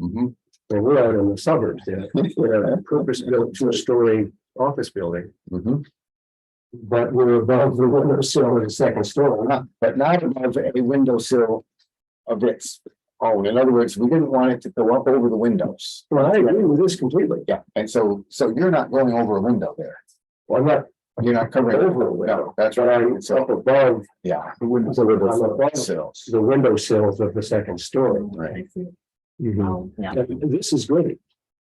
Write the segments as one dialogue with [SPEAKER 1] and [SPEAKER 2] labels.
[SPEAKER 1] Mhm.
[SPEAKER 2] And we're out in the suburbs there, we're a purpose-built two-story office building,
[SPEAKER 1] Mhm.
[SPEAKER 2] but we're above the window sill of the second story.
[SPEAKER 1] Not- But not above a windowsill of its own. In other words, we didn't want it to go up over the windows.
[SPEAKER 2] Well, I agree with this completely.
[SPEAKER 1] Yeah, and so, so you're not going over a window there.
[SPEAKER 2] Well, I'm not
[SPEAKER 1] You're not covering.
[SPEAKER 2] Over a window.
[SPEAKER 1] No, That's
[SPEAKER 2] but
[SPEAKER 1] right.
[SPEAKER 2] I'm
[SPEAKER 1] And so,
[SPEAKER 2] up above
[SPEAKER 1] yeah.
[SPEAKER 2] the window sills,
[SPEAKER 1] Sills.
[SPEAKER 2] the window sills of the second story.
[SPEAKER 1] Right.
[SPEAKER 3] Oh, yeah.
[SPEAKER 2] And This is great.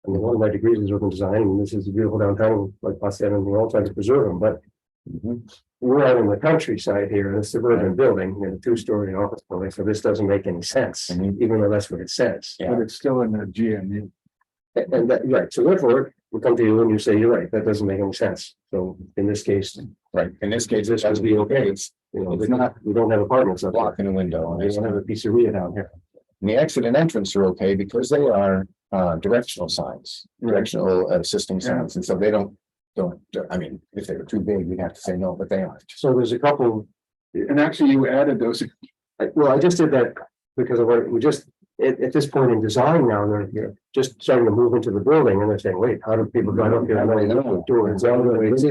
[SPEAKER 2] I mean, one of my degrees is urban design, and this is a beautiful downtown, like I said, and we're all trying to preserve them, but
[SPEAKER 1] Mhm.
[SPEAKER 2] we're out in the countryside here, in a suburban building, in a two-story office building, so this doesn't make any sense,
[SPEAKER 1] Mhm.
[SPEAKER 2] even though that's what it says.
[SPEAKER 1] Yeah. But
[SPEAKER 2] it's still in the
[SPEAKER 1] E.
[SPEAKER 2] GMU. And that, right, so therefore, we come to you and you say, you're right, that doesn't make any sense. So in this case, you
[SPEAKER 1] Right. In this case,
[SPEAKER 2] This
[SPEAKER 1] this
[SPEAKER 2] would
[SPEAKER 1] has
[SPEAKER 2] be
[SPEAKER 1] be
[SPEAKER 2] okay.
[SPEAKER 1] okay. It's
[SPEAKER 2] know,
[SPEAKER 1] It's
[SPEAKER 2] there's
[SPEAKER 1] not-
[SPEAKER 2] not, we don't have apartments up there.
[SPEAKER 1] blocking the window. and
[SPEAKER 2] We
[SPEAKER 1] it's-
[SPEAKER 2] don't have a pizzeria down here.
[SPEAKER 1] And the exit and entrance are okay because they are uh directional signs, directional uh, assisting signs, and so they don't. Don't, I mean, if they were too big, we'd have to say no, but they aren't.
[SPEAKER 2] So there's a couple,
[SPEAKER 4] And actually, you added those,
[SPEAKER 2] I- well, I just did that because of what we just, at, at this point in design now, they're, you know, just starting to move into the building and they're saying, wait, how do people, I don't get it, I don't do it. It's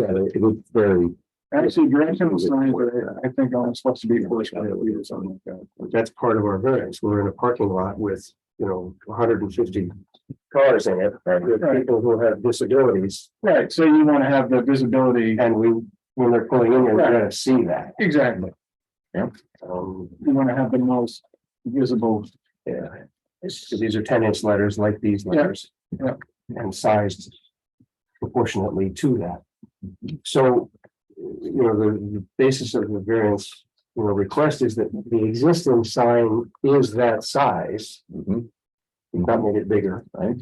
[SPEAKER 2] very.
[SPEAKER 4] actually, directional signs, but I I think I'm supposed to be forced by the lead or something like that.
[SPEAKER 2] That's part of our variance. We're in a parking lot with, you know, hundred and fifty cars in it, with
[SPEAKER 4] Right.
[SPEAKER 2] people who have disabilities,
[SPEAKER 4] Right, so you want to have the visibility,
[SPEAKER 2] and we, when they're pulling in, we're gonna see that.
[SPEAKER 4] exactly,
[SPEAKER 2] Um,
[SPEAKER 4] you want to have the most visible,
[SPEAKER 2] yeah, It's- these are ten inch letters like these letters.
[SPEAKER 4] Yeah.
[SPEAKER 2] And sized proportionately to that. So, you know, the, the basis of the variance, you know, request is that the existing sign is that size,
[SPEAKER 1] Mhm,
[SPEAKER 2] not made it bigger.
[SPEAKER 1] Right?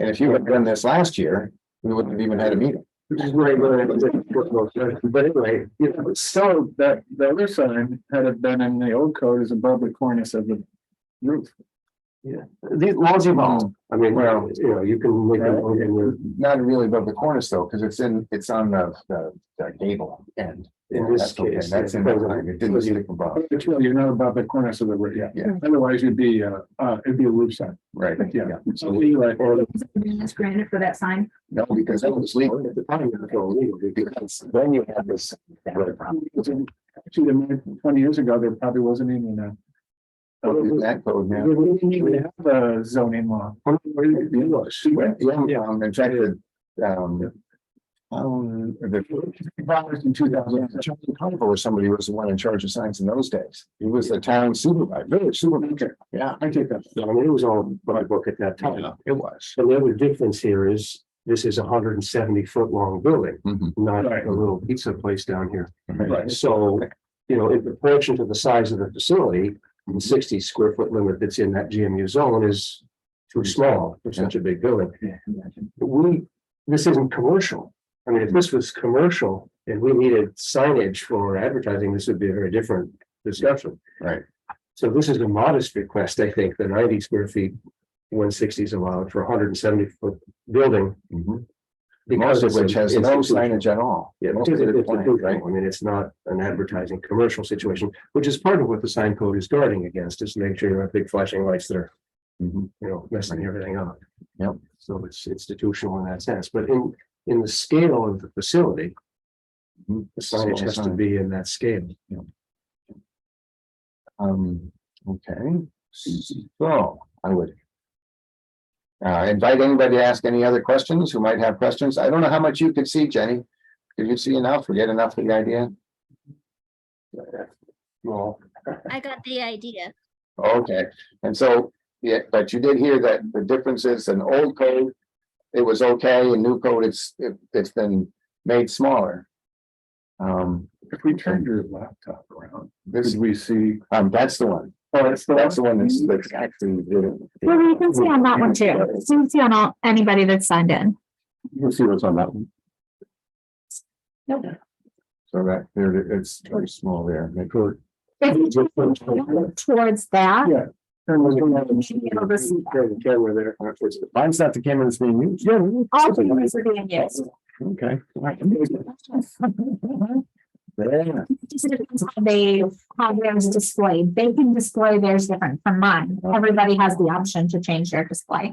[SPEAKER 1] And if you had done this last year, we wouldn't have even had a meeting.
[SPEAKER 2] Right, right. But anyway, you know,
[SPEAKER 4] so that the other sign had it been in the old code is above the cornice of the roof.
[SPEAKER 2] these laws evolve. I mean, well, you know, you can make them,
[SPEAKER 1] Right.
[SPEAKER 2] and you're,
[SPEAKER 1] Not really above the cornice though, because it's in, it's on the, the, the gable end.
[SPEAKER 2] in this
[SPEAKER 1] That's okay,
[SPEAKER 2] case.
[SPEAKER 1] That's in, it didn't stick above,
[SPEAKER 4] But you're you're not above the cornice of the roof, yeah.
[SPEAKER 1] Yeah.
[SPEAKER 4] Otherwise, you'd be, uh, uh, it'd be a roof sign,
[SPEAKER 1] right?
[SPEAKER 4] yeah. So we like,
[SPEAKER 2] And
[SPEAKER 3] It's granted for that sign.
[SPEAKER 1] No, because that was legal.
[SPEAKER 2] at the time, it was all legal,
[SPEAKER 1] Because then you had this,
[SPEAKER 3] That was a problem.
[SPEAKER 4] Actually, the minute- twenty years ago, there probably wasn't even a.
[SPEAKER 1] that code now.
[SPEAKER 4] We didn't even have a zoning law.
[SPEAKER 1] Yeah, yeah, um, in fact, the, um. Um, the. Congress In two thousand, Charlie Carnival or somebody was the one in charge of signs in those days. He was the town supervisor, village supervisor. Yeah,
[SPEAKER 4] I take that.
[SPEAKER 2] I mean, it was all by book at that time.
[SPEAKER 1] it was.
[SPEAKER 2] So the other difference here is, this is a hundred and seventy foot long building,
[SPEAKER 1] Mhm.
[SPEAKER 2] not
[SPEAKER 4] Right.
[SPEAKER 2] a little pizza place down here.
[SPEAKER 4] Right.
[SPEAKER 2] So, you know, in proportion to the size of the facility, the sixty square foot limit that's in that GMU zone is too small for such a big building. But We, this isn't commercial. I mean, if this was commercial and we needed signage for advertising, this would be a very different discussion.
[SPEAKER 1] Right.
[SPEAKER 2] So this is a modest request, I think, the ninety square feet, one sixty is allowed for hundred and seventy foot building.
[SPEAKER 1] Mhm.
[SPEAKER 2] because
[SPEAKER 1] Most of
[SPEAKER 2] it's a-
[SPEAKER 1] which has
[SPEAKER 2] it's
[SPEAKER 1] no
[SPEAKER 2] institutional.
[SPEAKER 1] signage at all.
[SPEAKER 2] Yeah,
[SPEAKER 1] Most
[SPEAKER 2] because
[SPEAKER 1] of
[SPEAKER 2] it-
[SPEAKER 1] it is
[SPEAKER 2] it's a
[SPEAKER 1] blank,
[SPEAKER 2] big
[SPEAKER 1] right?
[SPEAKER 2] thing. I mean, it's not an advertising commercial situation, which is part of what the sign code is guarding against, is make sure you have big flashing lights that are,
[SPEAKER 1] Mhm.
[SPEAKER 2] you know, messing everything up.
[SPEAKER 1] Yep.
[SPEAKER 2] So it's institutional in that sense, but in, in the scale of the facility,
[SPEAKER 1] Mhm.
[SPEAKER 2] the signage has to be in that scale.
[SPEAKER 1] Um, okay, so I would. Uh, invite anybody to ask any other questions who might have questions. I don't know how much you could see, Jenny. Did you see enough or get enough of the idea?
[SPEAKER 2] Well,
[SPEAKER 5] I got the idea.
[SPEAKER 1] Okay, and so, yeah, but you did hear that the difference is an old code. It was okay, and new code, it's, it- it's been made smaller. Um,
[SPEAKER 4] If we turned your laptop around,
[SPEAKER 1] this,
[SPEAKER 4] could we see?
[SPEAKER 1] um, that's the one.
[SPEAKER 4] Oh, that's the
[SPEAKER 1] That's the one that's, that's actually.
[SPEAKER 3] Well, you can see on that one too. You can see on all, anybody that's signed in.
[SPEAKER 1] You can see what's on that one.
[SPEAKER 3] Nope.
[SPEAKER 1] So that, there, it- it's very small there.
[SPEAKER 3] If you just look Towards that,
[SPEAKER 4] Yeah.
[SPEAKER 3] you should be able to see that.
[SPEAKER 1] Camera there. Mine's not the camera that's being used. Yeah.
[SPEAKER 3] all cameras are being used.
[SPEAKER 1] Okay. Yeah,
[SPEAKER 3] It Just depends how they, how theirs displayed. They can display theirs different from mine. Everybody has the option to change their display.